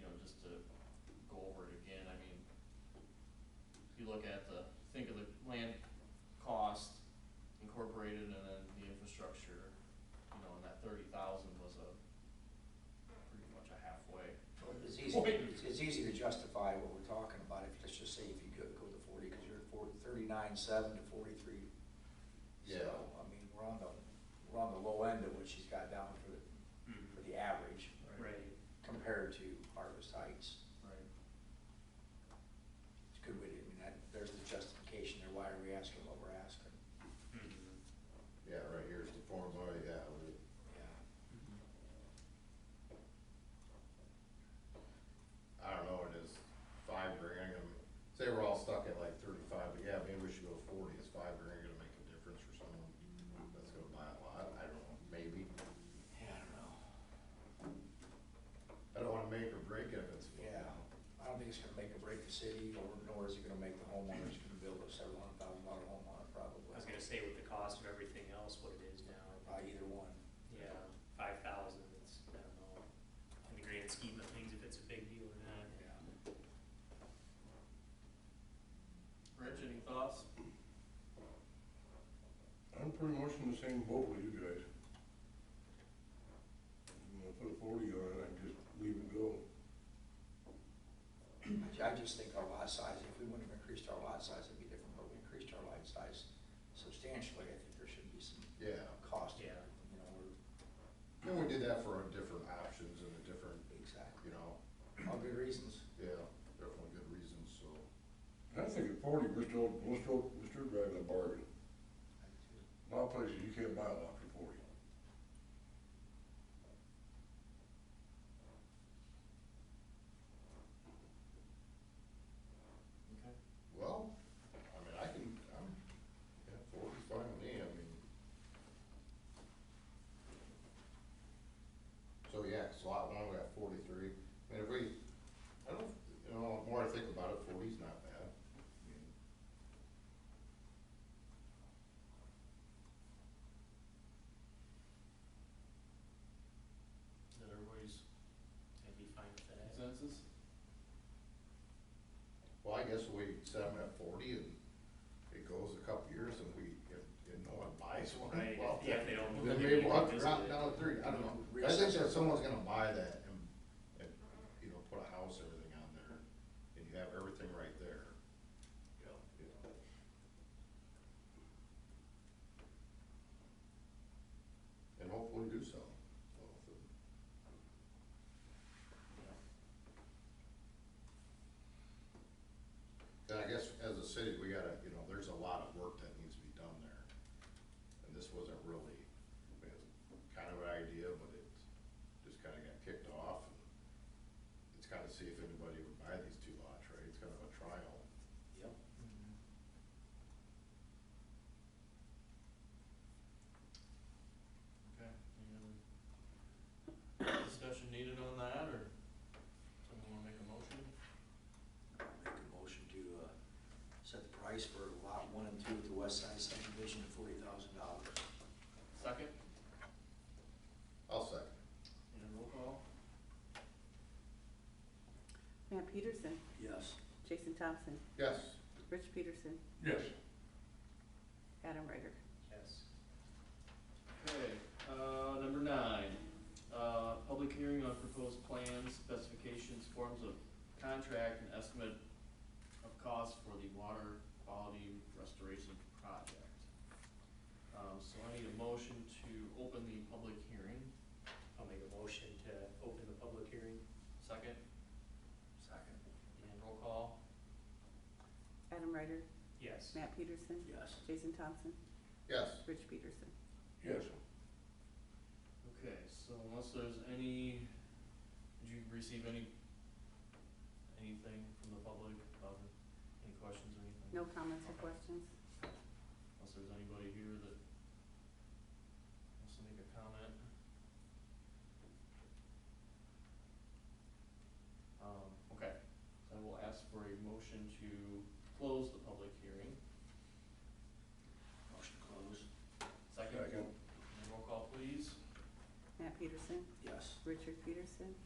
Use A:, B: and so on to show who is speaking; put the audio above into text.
A: to go over it again, I mean, if you look at the, think of the land cost incorporated and then the infrastructure, you know, and that thirty thousand was a, pretty much a halfway.
B: It's easy, it's- it's easy to justify what we're talking about, if, let's just say if you go, go to forty, because you're at forty, thirty-nine, seven to forty-three.
C: Yeah.
B: So, I mean, we're on the, we're on the low end of what she's got down for the, for
D: Mm-hmm.
B: the average
A: Right,
B: compared to Harvest Heights.
A: right.
B: It's a good way to, I mean, that, there's the justification there, why are we asking what we're asking?
D: Mm-hmm.
C: Yeah, right here's the formula, yeah, we,
B: Yeah.
C: I don't know, it is five grand, I mean, say we're all stuck at like thirty-five, but yeah, maybe we should go forty, is five grand gonna make a difference for someone that's gonna buy a lot, I don't know, maybe.
B: Yeah, I don't know.
C: I don't wanna make or break it if it's.
B: Yeah, I don't think it's gonna make or break the city, or nor is it gonna make the homeowner, it's gonna build a seven hundred thousand dollar homeowner probably.
D: I was gonna say with the cost of everything else, what it is now,
B: Probably either one.
D: yeah, five thousand, it's, I don't know, in the grand scheme of things, if it's a big deal or not.
B: Yeah.
A: Rich, any thoughts?
E: I'm pretty much in the same boat with you guys. You know, put a forty on it, I just leave it go.
B: I I just think our lot size, if we wouldn't have increased our lot size, it'd be different, but we increased our lot size substantially, I think there should be some
C: Yeah,
B: cost.
D: Yeah.
B: You know, or,
C: and we did that for our different options and the different,
B: exactly,
C: you know,
B: all good reasons.
C: yeah, definitely good reasons, so.
E: And I think at forty, we're still, we're still, we're still driving a bargain. A lot of places, you can't buy a lot for forty.
A: Okay.
C: Well, I mean, I can, I'm, yeah, forty's fine with me, I mean. So, yeah, so lot one, we got forty-three, and if we, I don't, you know, the more I think about it, forty's not bad. I mean,
A: Is that everybody's
D: I'd be fine with that.
A: consensus?
C: Well, I guess we set them at forty and it goes a couple years and we, if, if no one buys one,
D: Right,
C: well,
D: yeah, if they don't move
C: then
D: it, we
C: maybe
D: can
C: we'll have to
D: revisit
C: drop
D: it.
C: down to oh three, I don't know. I think that someone's gonna buy that and, and, you know, put a house, everything on there, and you have everything right there. You know. And hopefully do so. so. And I guess as a city, we gotta, you know, there's a lot of work that needs to be done there. And this wasn't really, I mean, it's kind of an idea, but it just kind of got kicked off. and It's kind of see if anybody would buy these two lots, right? It's kind of a trial.
B: Yep.
A: Okay, any other discussion needed on that, or someone wanna make a motion?
B: Make a motion to, uh, set the price for lot one and two at the west side subdivision at forty thousand dollars.
A: Second,
C: I'll second.
A: and a roll call?
F: Matt Peterson,
B: Yes.
F: Jason Thompson,
C: Yes,
F: Rich Peterson,
E: Yes.
F: Adam Ryder.
D: Yes.
A: Okay, uh, number nine, uh, public hearing on proposed plans, specifications, forms of contract, and estimate of cost for the water quality restoration project. Um, so I need a motion to open the public hearing,
D: I'll make a motion to open the public hearing.
A: second,
B: Second.
A: and roll call,
F: Adam Ryder,
D: Yes.
F: Matt Peterson,
B: Yes.
F: Jason Thompson,
C: yes.
F: Rich Peterson.
E: Yes.
A: okay, so unless there's any, did you receive any, anything from the public, about it? any questions or anything?
F: No comments or questions?
A: Unless there's anybody here that wants to make a comment. Um, okay, so I will ask for a motion to close the public hearing.
B: Motion closed.
A: Second,
E: Second.
A: and roll call please.
F: Matt Peterson,
B: Yes.
F: Richard Peterson,